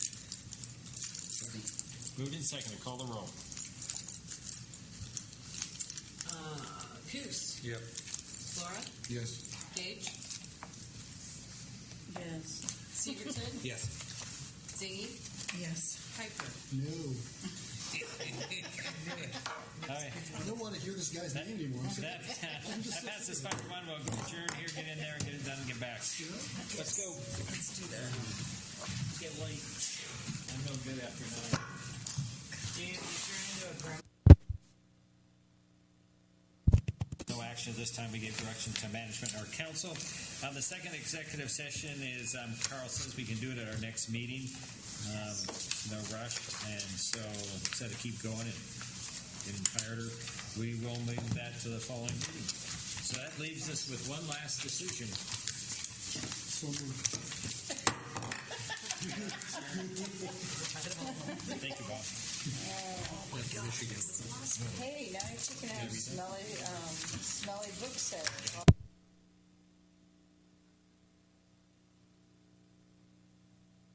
Moved in second, call the roll. Uh, Coos, Yep. Laura, Yes. Gage, Yes. Severson, Yes. Zingy, Yes. Piper. No, All right. I don't want to hear this guy's name anymore. I'm That, that passes five to one. We'll adjourn here, get in there, get it done, and get back. Let's go. Let's do that. Get late. I'm no good after nine. No action this time. We gave direction to management and our council. Uh, the second executive session is um, Carl says we can do it at our next meeting. Um, no rush, and so instead of keep going and getting tireder, we will move that to the following meeting. So that leaves us with one last decision. So moved. Thank you, Bob. Hey, now you're taking out smelly, um, smelly book set.